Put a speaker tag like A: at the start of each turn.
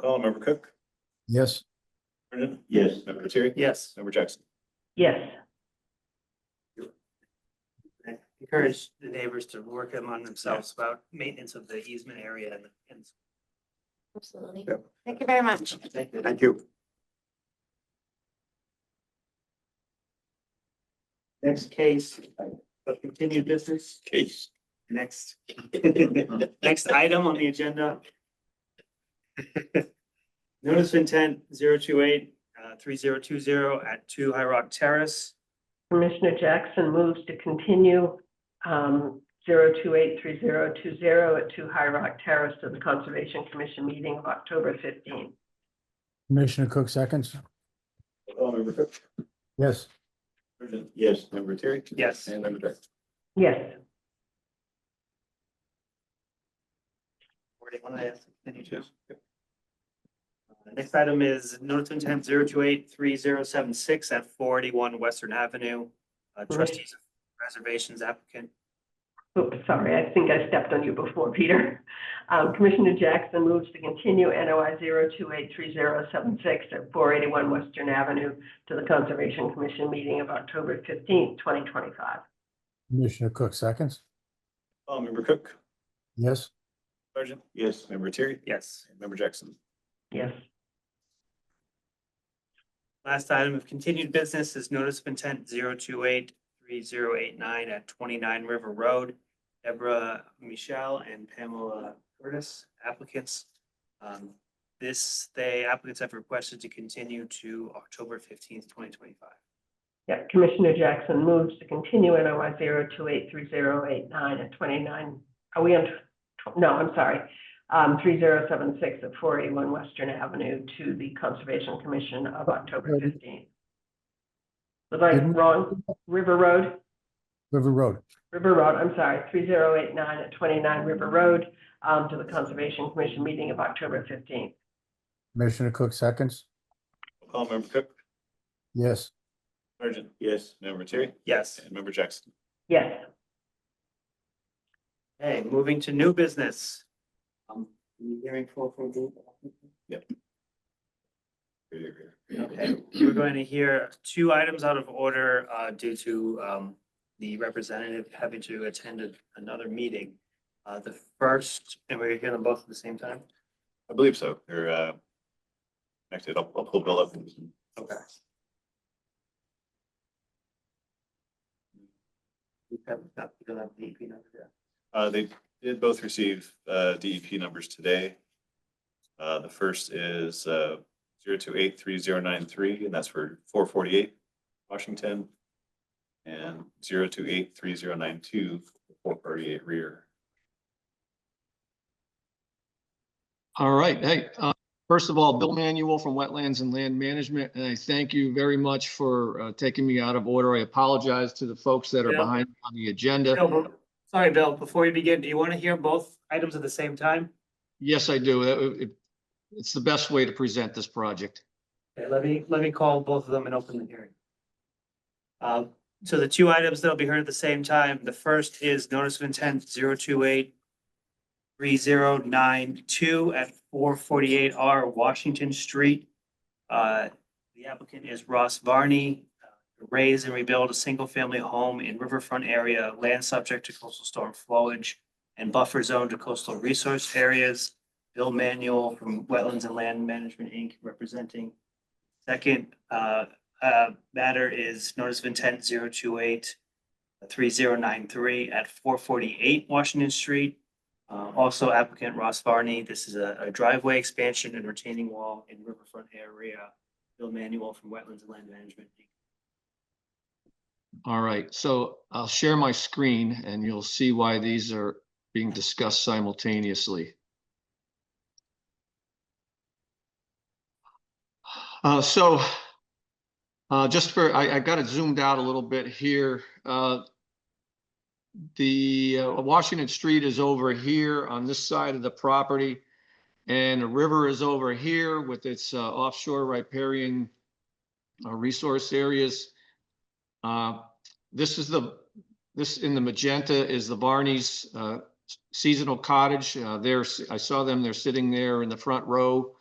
A: call, member Cook,
B: Yes.
A: Brennan,
C: Yes.
A: member Terry,
D: Yes.
A: member Jackson.
E: Yes,
D: Encourage the neighbors to work among themselves about maintenance of the easement area and, and
F: Absolutely.
A: Yep.
F: Thank you very much.
C: Thank you.
D: Next case of continued business,
A: Case.
D: next. Next item on the agenda. Notice of intent zero two eight, uh, three zero two zero at two High Rock Terrace.
E: Commissioner Jackson moves to continue um, 0283020 at 2 High Rock Terrace to the Conservation Commission meeting of October 15.
B: Commissioner Cook seconds.
A: Call, member Cook,
B: Yes.
A: Brennan,
C: Yes.
A: member Terry,
D: Yes.
A: and member Jackson.
E: Yes,
D: Or do you wanna ask? Any two? Uh, Next item is notice of intent zero two eight three zero seven six at four eighty-one Western Avenue. Uh, trustees of reservations applicant.
E: Oops, sorry, I think I stepped on you before, Peter. Um, Commissioner Jackson moves to continue NOI 0283076 at 481 Western Avenue to the Conservation Commission meeting of October 15, 2025.
B: Commissioner Cook seconds.
A: Call, member Cook,
B: Yes.
A: Sergeant,
C: Yes.
A: member Terry,
D: Yes.
A: and member Jackson.
E: Yes.
D: Last item of continued business is notice of intent zero two eight three zero eight nine at twenty-nine River Road. Deborah Michelle and Pamela Curtis applicants. Um, this, they applicants have requested to continue to October fifteenth, twenty twenty-five.
E: Yeah, Commissioner Jackson moves to continue NOI zero two eight three zero eight nine at twenty-nine, are we on, tw- no, I'm sorry, um, three zero seven six at four eighty-one Western Avenue to the Conservation Commission of October
B: Pardon?
E: fifteenth. Was I
B: Pardon?
E: wrong? River Road,
B: River Road.
E: River Road, I'm sorry, three zero eight nine at twenty-nine River Road, um, to the Conservation Commission meeting of October fifteenth.
B: Commissioner Cook seconds.
A: Call, member Cook,
B: Yes.
A: Sergeant,
C: Yes.
A: member Terry,
D: Yes.
A: and member Jackson.
E: Yes,
D: Hey, moving to new business. Um, you hearing full from the? Okay, we're going to hear two items out of order uh due to um the representative having to attend a- another meeting. Uh, the first, and we're hearing them both at the same time?
A: I believe so. They're, uh, connected. I'll, I'll pull Bill up.
D: Okay. We have not- we don't have the EP number yet.
A: Uh, they did both receive, uh, DEP numbers today. Uh, the first is, uh, zero two eight three zero nine three, and that's for four forty-eight Washington. And zero two eight three zero nine two, four thirty-eight rear.
G: All right. Hey, uh, first of all, Bill Manuel from Wetlands and Land Management, and I thank you very much for uh, taking me out of order. I apologize to the folks that are
D: Yeah.
G: behind on the agenda.
D: Bill, Sorry, Bill, before we begin, do you want to hear both items at the same time?
G: Yes, I do. That- it- It's the best way to present this project.
D: Okay, let me, let me call both of them and open the hearing. Um, so the two items that'll be heard at the same time, the first is notice of intent zero two eight three zero nine two at four forty-eight R Washington Street. Uh, the applicant is Ross Varney. uh, Raise and rebuild a single-family home in riverfront area, land subject to coastal storm flowage and buffer zone to coastal resource areas. Bill Manuel from Wetlands and Land Management, Inc., representing Second, uh, uh, matter is notice of intent zero two eight three zero nine three at four forty-eight Washington Street. Uh, also applicant Ross Varney, this is a a driveway expansion and retaining wall in riverfront area. Bill Manuel from Wetlands and Land Management.
G: All right, so I'll share my screen and you'll see why these are being discussed simultaneously. Uh, so uh, just for, I, I got it zoomed out a little bit here. Uh, The uh, Washington Street is over here on this side of the property. And the river is over here with its uh, offshore riparian uh, resource areas. Uh, This is the, this in the magenta is the Barney's uh, seasonal cottage. Uh, There's, I saw them, they're sitting there in the front row.